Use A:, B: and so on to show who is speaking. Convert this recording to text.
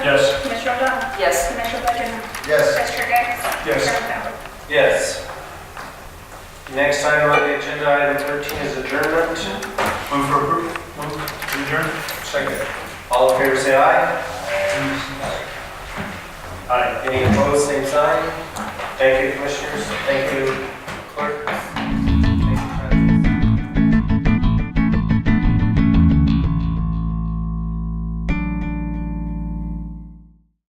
A: Yes.
B: Commissioner Legend?
C: Yes.
B: Vice Chair Gagos?
D: Yes.
B: Chairman Ballard?
D: Yes. Next item on the agenda, item 13 is adjournment.
C: Move for approval. Move adjourn. Second.
D: All in favor, say aye. Aye. Any opposed, same sign. Thank you, commissioners. Thank you,